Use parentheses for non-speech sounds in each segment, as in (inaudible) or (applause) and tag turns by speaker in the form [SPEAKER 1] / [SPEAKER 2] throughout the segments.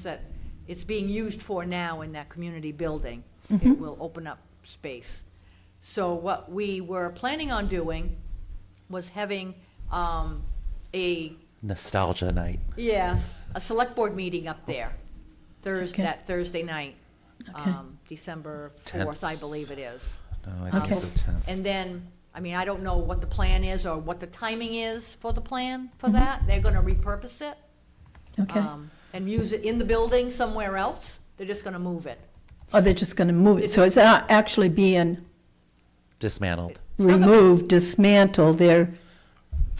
[SPEAKER 1] that it's being used for now in that community building.
[SPEAKER 2] Mm-hmm.
[SPEAKER 1] It will open up space. So what we were planning on doing was having um, a,
[SPEAKER 3] Nostalgia night.
[SPEAKER 1] yes, a select board meeting up there, Thursday,
[SPEAKER 2] Okay.
[SPEAKER 1] that Thursday night,
[SPEAKER 2] Okay.
[SPEAKER 1] um, December
[SPEAKER 3] Tenth.
[SPEAKER 1] 4th, I believe it is.
[SPEAKER 3] No, Oh, I think it's the
[SPEAKER 2] Okay.
[SPEAKER 3] 10th.
[SPEAKER 1] And then, I mean, I don't know what the plan is or what the timing is for the plan for
[SPEAKER 2] Mm-hmm.
[SPEAKER 1] that. They're going to repurpose it.
[SPEAKER 2] Okay.
[SPEAKER 1] um, and use it in the building somewhere else, they're just gonna move it.
[SPEAKER 2] Or they're just going to move it, so it's not actually being
[SPEAKER 3] Dismantled.
[SPEAKER 2] removed, dismantled, they're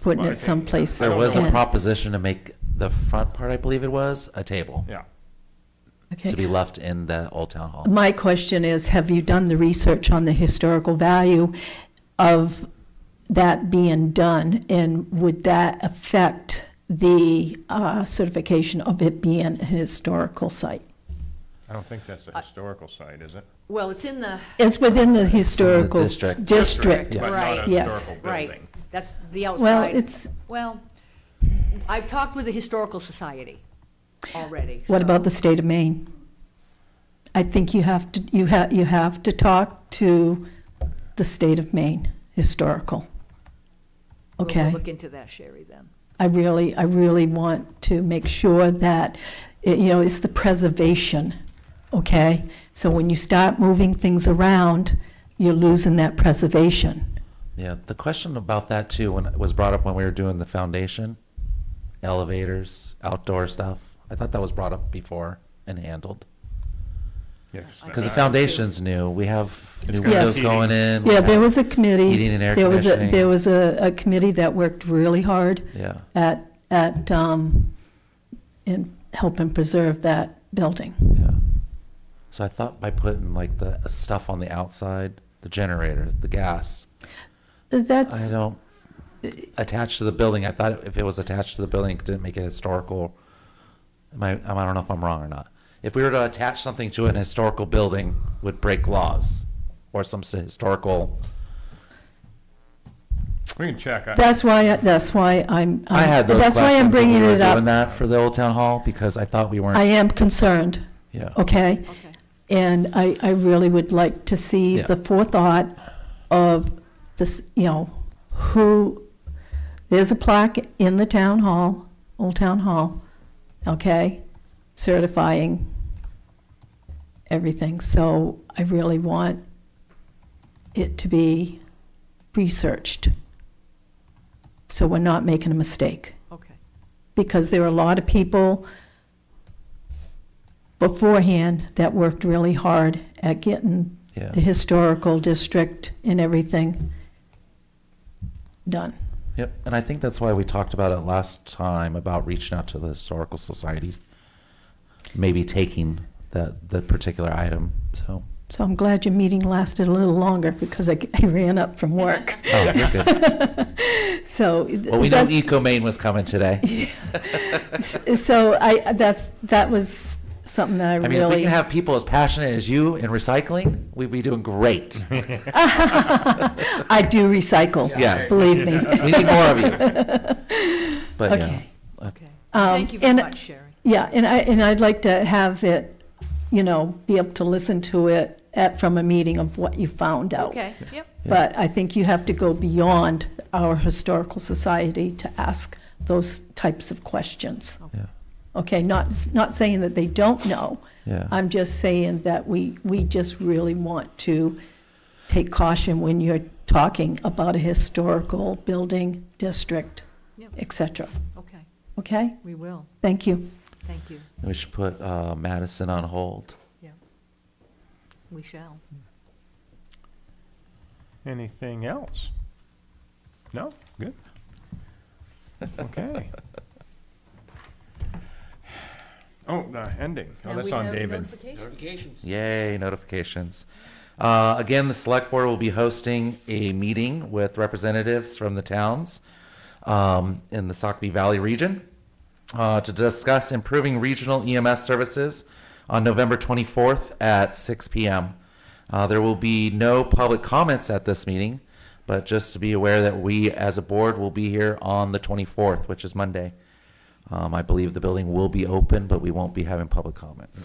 [SPEAKER 2] putting
[SPEAKER 4] Well, I
[SPEAKER 2] it
[SPEAKER 4] think
[SPEAKER 2] someplace.
[SPEAKER 4] I
[SPEAKER 3] There
[SPEAKER 4] don't
[SPEAKER 3] was
[SPEAKER 4] know.
[SPEAKER 3] a
[SPEAKER 2] in.
[SPEAKER 3] proposition to make the front part, I believe it was, a table
[SPEAKER 4] Yeah.
[SPEAKER 2] Okay.
[SPEAKER 3] to be left in the old town hall.
[SPEAKER 2] My question is, have you done the research on the historical value of that being done? And would that affect the uh, certification of it being a historical site?
[SPEAKER 4] I don't think
[SPEAKER 1] Uh,
[SPEAKER 4] that's a historical site, is it?
[SPEAKER 1] Well, it's in the,
[SPEAKER 2] It's within the historical
[SPEAKER 3] district.
[SPEAKER 2] district.
[SPEAKER 1] yeah.
[SPEAKER 4] But not
[SPEAKER 1] Right.
[SPEAKER 4] a
[SPEAKER 2] Yes.
[SPEAKER 4] historical
[SPEAKER 1] right,
[SPEAKER 4] building.
[SPEAKER 1] that's the outside.
[SPEAKER 2] Well, it's,
[SPEAKER 1] Well, I've talked with the Historical Society already.
[SPEAKER 2] What
[SPEAKER 1] so-
[SPEAKER 2] about the state of Maine? I think you have to, you have, you have to talk to the state of Maine, historical.
[SPEAKER 1] We'll-
[SPEAKER 2] Okay?
[SPEAKER 1] We'll look into that, Sherry, then.
[SPEAKER 2] I really, I really want to make sure that, it- you know, it's the preservation, okay? So when you start moving things around, you're losing that preservation.
[SPEAKER 3] Yeah, the question about that too, when it was brought up when we were doing the foundation, elevators, outdoor stuff. I thought that was brought up before and handled.
[SPEAKER 4] Yes.
[SPEAKER 3] Because the
[SPEAKER 1] Yeah.
[SPEAKER 3] foundation's new. We have new
[SPEAKER 4] got
[SPEAKER 3] windows
[SPEAKER 2] Yes.
[SPEAKER 3] going in. we
[SPEAKER 2] Yeah, there
[SPEAKER 3] have-
[SPEAKER 2] was a committee.
[SPEAKER 3] Heating and air
[SPEAKER 2] There was a, there
[SPEAKER 3] conditioning.
[SPEAKER 2] was a, a committee that worked really hard
[SPEAKER 3] Yeah,
[SPEAKER 2] at, at, um, in helping preserve that building.
[SPEAKER 3] yeah. So I thought by putting like the stuff on the outside, the generator, the gas, I
[SPEAKER 2] That's,
[SPEAKER 3] don't, attached to the building, I thought if it was attached to the building, it didn't make it historical. Am I, I don't know if I'm wrong or not. If we were to attach something to an historical building, would break laws or some s- historical.
[SPEAKER 4] We can check. I-
[SPEAKER 2] that's why, that's why I'm. uh,
[SPEAKER 3] I had those
[SPEAKER 2] Um, That's why I'm
[SPEAKER 3] questions when we
[SPEAKER 2] bringing
[SPEAKER 3] were
[SPEAKER 2] it
[SPEAKER 3] Doing
[SPEAKER 2] up.
[SPEAKER 3] that for the old town hall because I thought we
[SPEAKER 2] I oh,
[SPEAKER 3] weren't,
[SPEAKER 2] am concerned,
[SPEAKER 3] yeah.
[SPEAKER 2] okay?
[SPEAKER 1] Okay.
[SPEAKER 2] And I, I really would like to see
[SPEAKER 3] Yeah.
[SPEAKER 2] the forethought of this, you know, who, there's a plaque in the town hall, Old Town Hall, okay, certifying everything. So I really want it to be researched. So we're not making a mistake
[SPEAKER 1] Okay,
[SPEAKER 2] because there were a lot of people beforehand that worked really hard at getting
[SPEAKER 3] Yeah,
[SPEAKER 2] the historical district and everything done.
[SPEAKER 3] yep. And I think that's why we talked about it last time about reaching out to the historical society. Maybe taking that, the particular item, so.
[SPEAKER 2] So I'm glad your meeting lasted a little longer because I I ran up from work.
[SPEAKER 3] Oh, you're good.
[SPEAKER 2] So
[SPEAKER 3] Well, we know
[SPEAKER 2] that's,
[SPEAKER 3] Eco Maine was coming today.
[SPEAKER 2] so I, that's, that was something that I
[SPEAKER 3] I mean, if we
[SPEAKER 2] really,
[SPEAKER 3] can have people as passionate as you in recycling, we'd be doing great.
[SPEAKER 2] (laughs) I do recycle,
[SPEAKER 3] Yes.
[SPEAKER 2] believe me.
[SPEAKER 3] We need more of
[SPEAKER 2] (laughs)
[SPEAKER 3] you. But yeah,
[SPEAKER 2] Okay.
[SPEAKER 4] Uh,
[SPEAKER 1] okay.
[SPEAKER 2] Um,
[SPEAKER 1] Thank you very
[SPEAKER 2] and-
[SPEAKER 1] much, Sherry.
[SPEAKER 2] Yeah, and I, and I'd like to have it, you know, be able to listen to it at, from a meeting of what you found out.
[SPEAKER 1] Okay, yep,
[SPEAKER 2] But I think you have to go beyond our historical society to ask those types of questions.
[SPEAKER 3] yeah,
[SPEAKER 2] Okay, not, not saying that they don't know.
[SPEAKER 3] yeah.
[SPEAKER 2] I'm just saying that we, we just really want to take caution when you're talking about a historical building, district,
[SPEAKER 1] Yep.
[SPEAKER 2] et cetera.
[SPEAKER 1] okay,
[SPEAKER 2] Okay?
[SPEAKER 1] we will,
[SPEAKER 2] Thank you.
[SPEAKER 1] thank you,
[SPEAKER 3] We should put uh, Madison on hold.
[SPEAKER 1] we shall.
[SPEAKER 4] Anything else? No? Good.
[SPEAKER 1] (laughs)
[SPEAKER 4] Okay. Oh, the ending. Oh,
[SPEAKER 1] Now
[SPEAKER 4] that's
[SPEAKER 1] we
[SPEAKER 4] on
[SPEAKER 1] have
[SPEAKER 4] David.
[SPEAKER 1] notification.
[SPEAKER 3] Yay, notifications. Uh, Again, the select board will be hosting a meeting with representatives from the towns um, in the Sockeye Valley region uh, to discuss improving regional EMS services on November 24th at 6 PM. Uh, There will be no public comments at this meeting, but just to be aware that we, as a board, will be here on the 24th, which is Monday. Um, I believe the building will be open, but we won't be having public comments.